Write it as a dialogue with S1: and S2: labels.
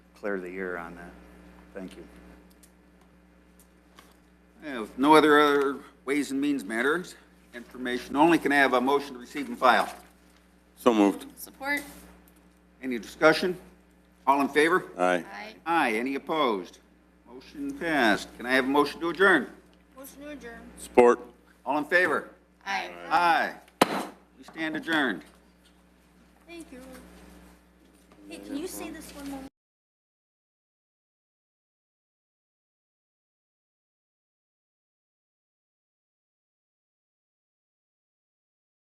S1: clear the air on that. Thank you.
S2: Yeah, With no other other ways and means matters, information only, can I have a motion to receive and file?
S3: So moved.
S4: Support?
S2: Any discussion? All in favor?
S3: Aye.
S4: Aye.
S2: Aye, any opposed? Motion passed. Can I have a motion to adjourn?
S4: Motion to adjourn.
S3: Support.
S2: All in favor?
S4: Aye.
S2: Aye. We stand adjourned.
S4: Thank you.
S5: Hey, can you say this one more?